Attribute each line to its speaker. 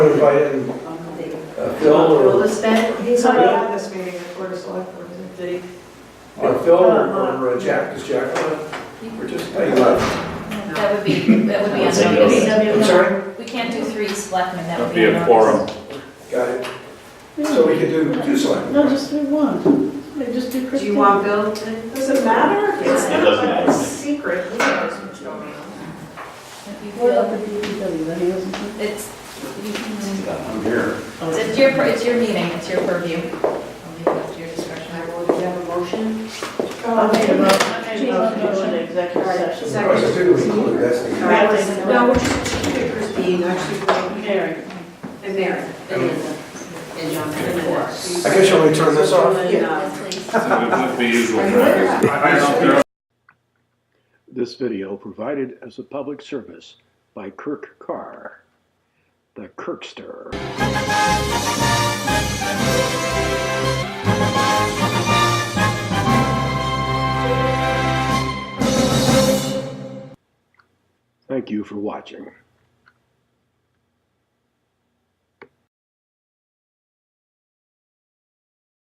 Speaker 1: notified and uh, Phil or,
Speaker 2: He's
Speaker 3: not
Speaker 2: not
Speaker 3: at
Speaker 2: at this meeting, the Board of Select Board, did he?
Speaker 1: or Phil or or Jack, does Jack participate?
Speaker 4: That would be, that would be
Speaker 5: Let's take it.
Speaker 4: unnoticed.
Speaker 1: I'm sorry?
Speaker 4: We can't do three selectmen, that would
Speaker 5: That'd
Speaker 4: be
Speaker 5: be a quorum.
Speaker 4: unnoticed.
Speaker 1: Got it. So we can do two selectmen.
Speaker 3: No, just do one. They just do
Speaker 6: Do
Speaker 3: Christine.
Speaker 6: you want Bill to?
Speaker 2: Does it matter? It's
Speaker 5: It
Speaker 2: not
Speaker 5: doesn't
Speaker 2: like
Speaker 5: matter.
Speaker 2: a secret, he knows what's going on.
Speaker 4: If you
Speaker 3: What up
Speaker 4: feel-
Speaker 3: at DPW, then he doesn't do-
Speaker 4: It's, you can-
Speaker 1: I'm here.
Speaker 4: it's your, pur- it's your meeting, it's your purview. I'll leave it up to your discretion.
Speaker 6: I will, do you have a motion? Oh,
Speaker 3: I made a mo- I made a
Speaker 2: Jean,
Speaker 3: motion to go
Speaker 2: motion.
Speaker 3: into executive session.
Speaker 1: I was doing the investigation.
Speaker 6: All right, listen, no, we're just keeping Christine, actually, we're-
Speaker 3: Mary.
Speaker 6: and Mary, and Linda, and John, and Linda. So
Speaker 1: I
Speaker 6: you-
Speaker 1: guess you want me to turn this off?
Speaker 6: And, uh,
Speaker 4: Yes, please.
Speaker 5: It would be usual
Speaker 6: Are you aware?
Speaker 5: practice. I don't care.
Speaker 7: This video provided as a public service by Kirk Carr, the Kirkster. Thank you for watching.